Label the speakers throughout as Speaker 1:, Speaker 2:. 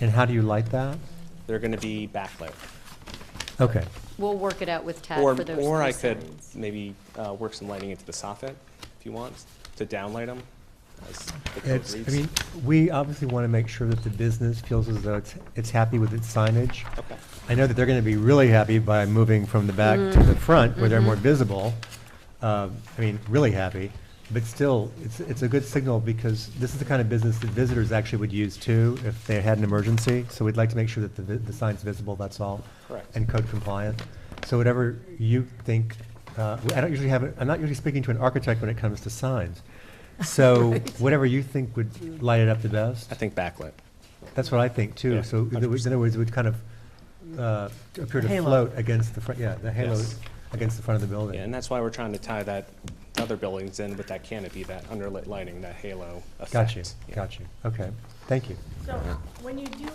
Speaker 1: And how do you light that?
Speaker 2: They're going to be backlit.
Speaker 1: Okay,
Speaker 3: We'll work it out with Tad
Speaker 2: Or,
Speaker 3: for those.
Speaker 2: or I
Speaker 3: three
Speaker 2: could
Speaker 3: signs.
Speaker 2: maybe uh, work some lighting into the soffit, if you want, to downlight them as the code
Speaker 1: it's, I
Speaker 2: reads.
Speaker 1: mean, we obviously want to make sure that the business feels as though it's, it's happy with its signage.
Speaker 2: Okay,
Speaker 1: I know that they're going to be really happy by moving from the back to the front where they're more visible. Uh, I mean, really happy, but still, it's, it's a good signal because this is the kind of business that visitors actually would use too if they had an emergency. So we'd like to make sure that the, vi- the sign's visible, that's all.
Speaker 2: Correct.
Speaker 1: And code compliant. So whatever you think, uh, I don't usually have, a- I'm not usually speaking to an architect when it comes to signs. So whatever you think would light it up the best.
Speaker 2: I think backlit.
Speaker 1: That's what I think
Speaker 2: Yeah,
Speaker 1: too. So in other words- in other words, it would kind of uh, appear to
Speaker 4: Halo.
Speaker 1: float against the front, yeah, the halo
Speaker 2: Yes.
Speaker 1: against the front of the
Speaker 2: Yeah, and
Speaker 1: building.
Speaker 2: that's why we're trying to tie that, the other buildings in with that canopy, that underlit lighting, that halo effect.
Speaker 1: Got you,
Speaker 2: Yeah.
Speaker 1: got you. Okay, thank you.
Speaker 5: So when you do,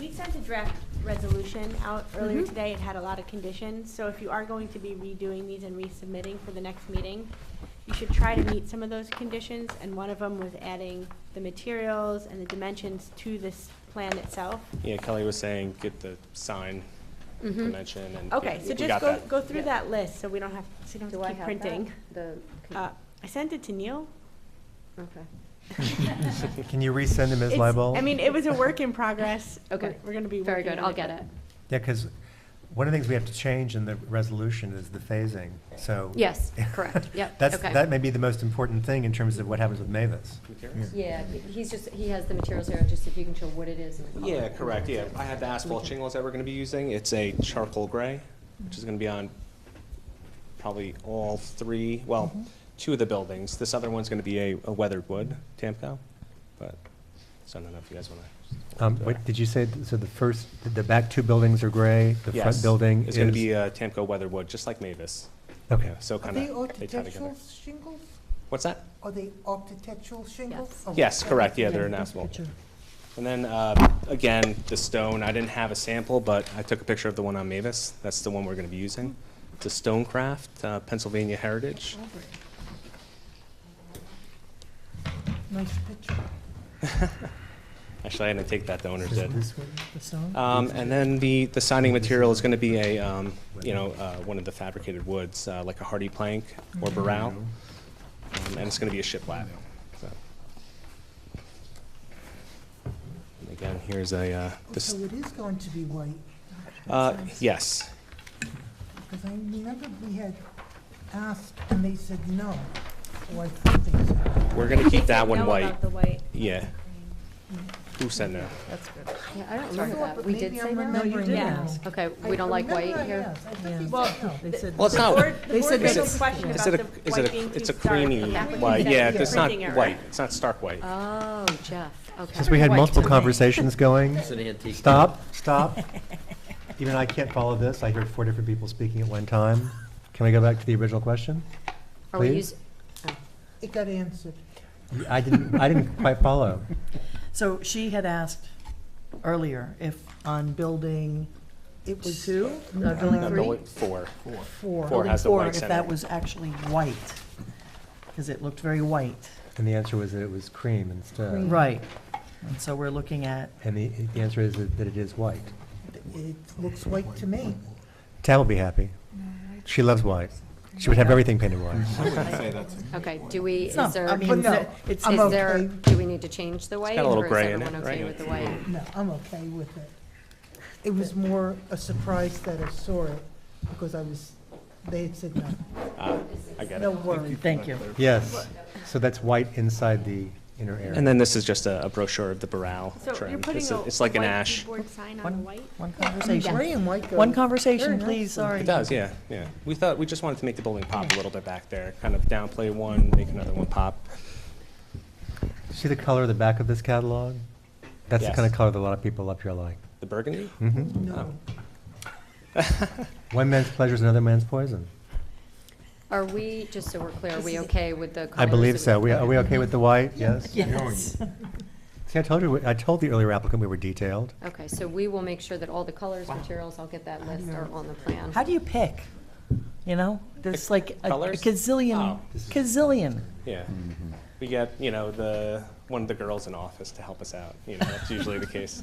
Speaker 5: we sent a draft resolution out earlier
Speaker 2: Mm-hmm.
Speaker 3: Mhm.
Speaker 5: today. It had a lot of conditions. So if you are going to be redoing these and resubmitting for the next meeting, you should try to meet some of those conditions. And one of them was adding the materials and the dimensions to this plan itself.
Speaker 2: Yeah, Kelly was saying, get the sign dimension and.
Speaker 5: Okay,
Speaker 2: yeah,
Speaker 5: so
Speaker 2: we
Speaker 5: just
Speaker 2: got
Speaker 5: go,
Speaker 2: that.
Speaker 5: go through
Speaker 3: Yeah.
Speaker 5: that list so we don't have, so you
Speaker 3: Do
Speaker 5: don't
Speaker 3: I
Speaker 5: have to
Speaker 3: have
Speaker 5: keep printing.
Speaker 3: that? The, con-
Speaker 5: Uh, I sent it to Neil.
Speaker 3: okay.
Speaker 1: Can you resend them, Ms.
Speaker 5: It's-
Speaker 1: Leibel?
Speaker 5: I mean, it was a work in progress.
Speaker 3: Okay.
Speaker 5: We're- We're gonna be
Speaker 3: Very
Speaker 5: working
Speaker 3: good,
Speaker 5: on
Speaker 3: I'll get it.
Speaker 1: Yeah, because one of the things we have to change in the resolution is the phasing, so.
Speaker 3: Yes, correct, yep,
Speaker 1: That's,
Speaker 3: okay.
Speaker 1: that may be the most important thing in terms of what happens with Mavis.
Speaker 2: Materials?
Speaker 3: Yeah, he's just, he has the materials here, just if you can show what it is and the color.
Speaker 2: Yeah, correct, yeah. I had the asphalt shingles that we're gonna be using. It's a charcoal gray, which is gonna be on probably all three, well,
Speaker 6: Mm-hmm.
Speaker 2: two of the buildings. This other one's gonna be a, a weathered wood, Tamco, but, so I don't know if you guys wanna.
Speaker 1: Um, What, did you say, th- so the first, the back two buildings are gray, the front
Speaker 2: Yes,
Speaker 1: building is?
Speaker 2: It's gonna be a Tamco weathered wood, just like Mavis.
Speaker 1: Okay,
Speaker 2: So
Speaker 6: Are
Speaker 2: kinda,
Speaker 6: they
Speaker 2: they tie together.
Speaker 6: architectural shingles?
Speaker 2: What's that?
Speaker 6: Are they architectural
Speaker 3: Yes.
Speaker 6: shingles? Oh,
Speaker 2: Yes,
Speaker 6: okay.
Speaker 2: correct, yeah, they're an asphalt. And then, uh, again, the stone, I didn't have a sample, but I took a picture of the one on Mavis. That's the one we're gonna be using. It's a Stonecraft, uh, Pennsylvania Heritage.
Speaker 6: Nice picture.
Speaker 2: Actually, I didn't take that, the owners
Speaker 1: Is it
Speaker 2: did.
Speaker 1: this one?
Speaker 2: Um, and then the, the signing material is gonna be a, um, you know, uh, one of the fabricated woods, uh, like a hardy plank or burrell. Um, and it's gonna be a shiplap, so. And Again, here's a, uh,
Speaker 6: Oh,
Speaker 2: this,
Speaker 6: So it is going to be white,
Speaker 2: uh, yes,
Speaker 6: because I remember we had asked and they said no, or I thought they said.
Speaker 2: we're gonna keep that one
Speaker 5: Know
Speaker 2: white,
Speaker 5: about the white.
Speaker 2: yeah. Who said no?
Speaker 3: Yeah, I don't remember
Speaker 6: Sorry,
Speaker 3: that,
Speaker 6: but
Speaker 3: we did
Speaker 6: maybe
Speaker 3: say
Speaker 6: I'm
Speaker 3: no.
Speaker 6: remembering-
Speaker 4: No, you did
Speaker 5: Yeah.
Speaker 4: ask.
Speaker 3: Okay, we don't like
Speaker 6: Remember
Speaker 3: white
Speaker 6: I
Speaker 3: here.
Speaker 6: asked, I thought they
Speaker 4: Well,
Speaker 6: said no.
Speaker 4: they said.
Speaker 2: Well, it's not-
Speaker 5: The board, the
Speaker 4: They
Speaker 5: board
Speaker 4: said
Speaker 5: made
Speaker 2: it's-
Speaker 5: a question
Speaker 2: Is it
Speaker 5: about
Speaker 2: a,
Speaker 5: the
Speaker 2: is
Speaker 5: white
Speaker 2: it
Speaker 5: being
Speaker 2: a,
Speaker 5: too
Speaker 2: it's a
Speaker 5: dark.
Speaker 2: creamy
Speaker 3: The applicant
Speaker 2: white,
Speaker 3: said
Speaker 2: yeah,
Speaker 3: it's a
Speaker 2: it's not
Speaker 5: printing error.
Speaker 2: white, it's not stark white.
Speaker 5: Uh,
Speaker 3: Oh, Jeff, okay.
Speaker 1: Since we had multiple
Speaker 3: White.
Speaker 1: conversations going.
Speaker 7: It's an antique.
Speaker 1: Stop, stop. Even I can't follow this. I heard four different people speaking at one time. Can we go back to the original question?
Speaker 3: Are we
Speaker 1: please?
Speaker 3: using,
Speaker 6: It got answered.
Speaker 1: I didn't, I didn't quite follow.
Speaker 4: So she had asked earlier if on building
Speaker 6: It was
Speaker 4: two, uh,
Speaker 2: No,
Speaker 4: building three?
Speaker 2: building Four.
Speaker 4: Four.
Speaker 2: Four has the
Speaker 4: Building
Speaker 2: white
Speaker 4: If
Speaker 2: center.
Speaker 4: that was actually white, because it looked very white.
Speaker 1: And the answer was that it was cream
Speaker 2: Mm-hmm.
Speaker 1: instead.
Speaker 4: Right. And so we're looking at,
Speaker 1: And the, the answer is that that it is white.
Speaker 6: It looks white to me.
Speaker 1: Tam will be happy. She loves white. She would have everything painted white.
Speaker 3: okay, do we,
Speaker 4: No,
Speaker 3: is there,
Speaker 4: I
Speaker 6: But
Speaker 4: mean,
Speaker 6: no,
Speaker 4: it's,
Speaker 6: I'm
Speaker 3: is there,
Speaker 6: okay.
Speaker 3: do we need to change the white?
Speaker 2: got a little
Speaker 3: or is
Speaker 2: gray in it,
Speaker 3: everyone okay
Speaker 2: right? Mm-hmm.
Speaker 3: with the white?
Speaker 6: No, I'm okay with it. It was more a surprise that I saw it because I was, they had said no.
Speaker 2: Ah, I get
Speaker 6: No
Speaker 2: it.
Speaker 6: worry.
Speaker 4: thank you.
Speaker 1: Yes. So that's white inside the inner area.
Speaker 2: And then this is just a a brochure of the Burrell
Speaker 5: So you're
Speaker 2: trim.
Speaker 5: putting
Speaker 2: It's
Speaker 5: a
Speaker 2: a- It's like an
Speaker 5: white
Speaker 2: ash.
Speaker 5: keyboard sign on a
Speaker 4: One,
Speaker 5: white?
Speaker 4: one conversation.
Speaker 6: Gray and white goes.
Speaker 4: One conversation,
Speaker 6: very nice
Speaker 4: please,
Speaker 6: with it.
Speaker 4: sorry.
Speaker 2: It does, yeah, yeah. We thought, we just wanted to make the building pop a little bit back there, kind of downplay one, make another one pop.
Speaker 1: See the color of the back of this catalog? That's the
Speaker 2: Yes.
Speaker 1: kind of color that a lot of people up here like.
Speaker 2: The burgundy?
Speaker 1: Mhm.
Speaker 6: No.
Speaker 1: One man's pleasure is another man's poison.
Speaker 3: Are we, just so we're clear, are we okay with the colors?
Speaker 1: I believe
Speaker 3: that
Speaker 1: so. We- Are we okay with the white? Yes?
Speaker 4: Yes.
Speaker 1: See, I told you, I told the earlier applicant we were detailed.
Speaker 3: Okay, so we will make sure that all the colors, materials, I'll get that list, are on the plan.
Speaker 4: How do you pick? You know, there's like a a
Speaker 2: Colours?
Speaker 4: gazillion,
Speaker 2: Oh.
Speaker 4: gazillion.
Speaker 2: Yeah. We get, you know, the, one of the girls in office to help us out, you know, that's usually the case.